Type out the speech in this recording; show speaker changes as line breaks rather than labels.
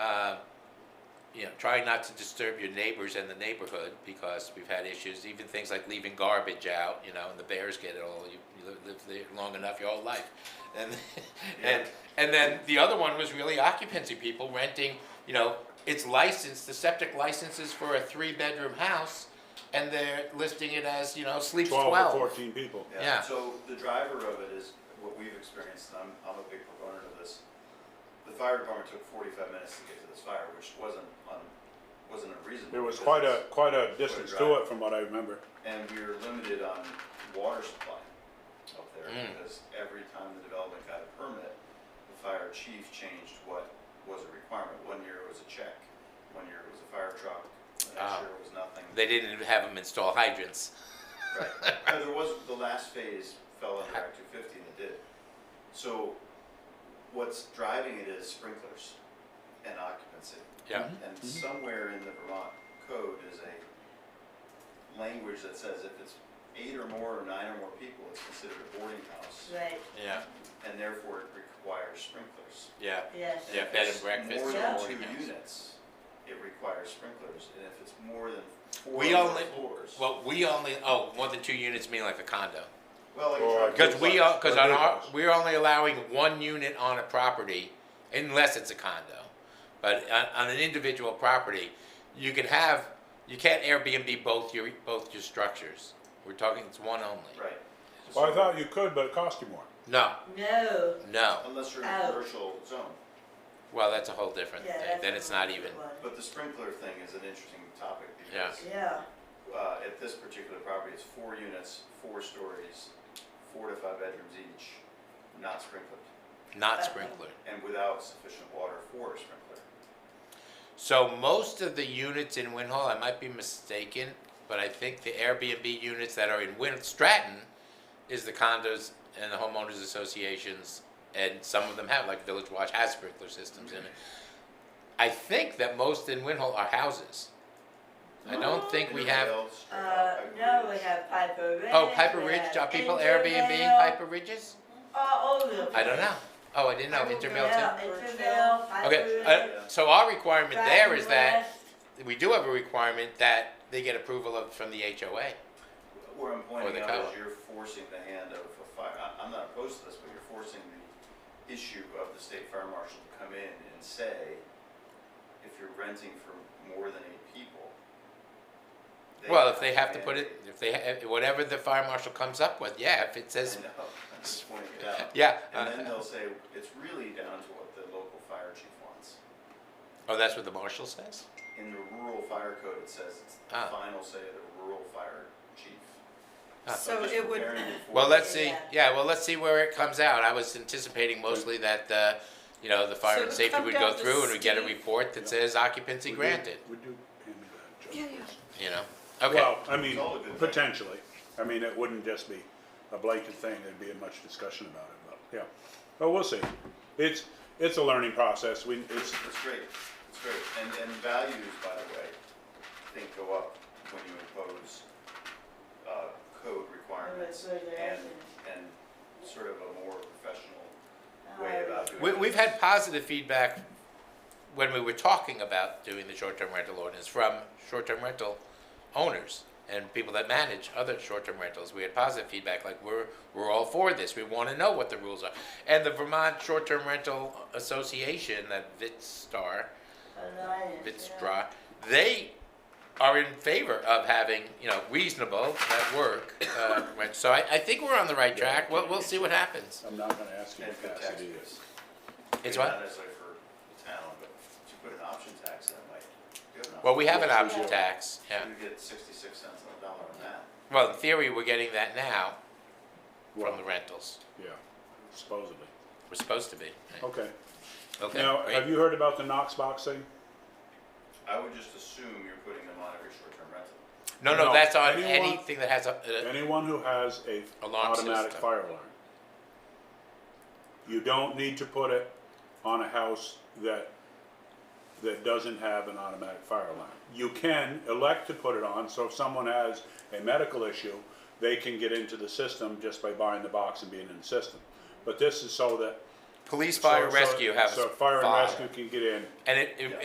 um, you know, try not to disturb your neighbors and the neighborhood because we've had issues, even things like leaving garbage out, you know, and the bears get it all. You, you live, live there long enough your whole life. And, and, and then the other one was really occupancy people renting, you know, it's licensed, the septic license is for a three bedroom house and they're listing it as, you know, sleeps 12.
twelve or fourteen people.
Yeah.
So the driver of it is what we've experienced, and I'm, I'm a big proponent of this. The fire department took forty-five minutes to get to this fire, which wasn't, un wasn't unreasonable.
There was
because
quite a,
it's-
quite a distance to
drive.
it from what I remember.
And we were limited on water supply up there,
Mm.
because every time the development got a permit, the fire chief changed what was a requirement. One year it was a check, one year it was a fire truck, the
Ah.
next year it was nothing.
They didn't have them install hydrants.
Right. No, there was, the last phase fell under Act two fifty and it did. So what's driving it is sprinklers and occupancy.
Yeah.
And somewhere in the Vermont code is a language that says if it's eight or more or nine or more people, it's considered a boarding house.
Right,
Yeah.
And therefore it requires sprinklers.
Yeah.
yes.
Yeah,
if
bed
it's
and breakfast
More
is
than
a
two
boarding house.
units, it requires sprinklers. And if it's more than four
We
or
only-
floors.
Well, we only, oh, more than two units mean like a condo.
Well, like a
Or-
truck
Because we are, because on our,
Ridiculous.
we're only allowing one unit on a property, unless it's a condo. But on, on an individual property, you can have, you can't Airbnb both your, both your structures. We're talking, it's one only.
Right.
Well, I thought you could, but it cost you more.
No,
No,
no.
Unless you're in a
Out.
commercial zone.
Well, that's a whole different
yeah,
thing.
that's.
Then it's not even,
But the sprinkler thing is an interesting topic
Yeah.
because
Yeah,
uh, at this particular property, it's four units, four stories, four to five bedrooms each, not sprinkled,
not sprinkler.
and without sufficient water for a sprinkler.
So most of the units in Win Hall, I might be mistaken, but I think the Airbnb units that are in Win Stratton is the condos and the homeowners associations, and some of them have, like Village Watch has sprinkler systems in it. I think that most in Win Hall are houses. I don't think we
Anybody
have,
else? Straight
uh,
out, Pike
no, we
Ridge.
have Piper Ridge.
oh, Piper
we
Ridge,
have
are people
Intervale,
Airbnb Piper Ridges?
All over the place.
I don't know. Oh, I didn't know,
Piper
Intervale
Ridge.
too?
Yeah, Intervale, Piper
Okay,
Ridge.
uh, so our requirement there
Dragon
is that
West.
we do have a requirement that they get approval of, from the HOA.
Where I'm
Or the
pointing out
cow.
is you're forcing the hand of a fire, I, I'm not opposed to this, but you're forcing the issue of the state fire marshal to come in and say, if you're renting for more than eight people.
Well, if they have to put it,
mandate-
if they, ha- whatever the fire marshal comes up with, yeah, if it says,
I know, I'm just pointing it out.
yeah.
And then
uh,
they'll say, it's really down to what the local fire chief wants.
Oh, that's what the marshal says?
In the rural fire code, it says it's the
Ah.
final say of the rural fire chief.
Ah.
So
just
it would,
preparing you for
Well,
that.
let's see, yeah, well, let's see where it comes out. I was anticipating mostly that, uh, you know, the
So
fire and
it'll
safety
come
would go
down to
through and we get a
Steve.
report that says occupancy
We do-
granted,
We do hand me that, Joe.
yeah, yeah.
you know? Okay,
Well, I mean,
It's all a good thing.
potentially. I mean, it wouldn't just be a blanket thing, there'd be much discussion about it, but, yeah. But we'll see. It's, it's a learning process. We, it's,
It's great, it's great, and, and values, by the way, I think go up when you impose, uh, code requirements
Right, right,
and,
right.
and sort of a more professional
Oh,
way about
uh,
doing
we,
it.
we've had positive feedback when we were talking about doing the short-term rental ordinance from short-term rental owners and people that manage other short-term rentals. We had positive feedback, like we're, we're all for this. We want to know what the rules are. And the Vermont Short-Term Rental Association, that VITSTAR,
Alliance, yeah.
VITSTRA, they are in favor of having, you know, reasonable at work. Uh, rent. so I, I think we're on the right track. We'll, we'll see what happens.
I'm not gonna ask you
And
to
for
pass
tax
it either.
base.
It's
Maybe
what?
Not necessarily for the town, but to put an option tax in, like, you have an
Well,
option
we have an
Yeah.
option tax, yeah.
tax, You get sixty-six cents on the dollar on that.
Well, in theory, we're getting that now from the
Well,
rentals.
yeah, supposedly.
We're supposed to be.
Okay.
Okay.
Now,
great.
have you heard about the Knox box thing?
I would just assume you're putting them on every short-term rental.
no, no,
No.
that's on
Anyone-
anything that has a. Uh,
Anyone who has a
Alarm
automatic
system.
fire alarm. You don't need to put it on a house that, that doesn't have an automatic fire alarm. You can elect to put it on, so if someone has a medical issue, they can get into the system just by buying the box and being in the system. But this is so that.
police, fire,
so- so-
rescue have a
So fire and
fire.
rescue can get in,
and it, it,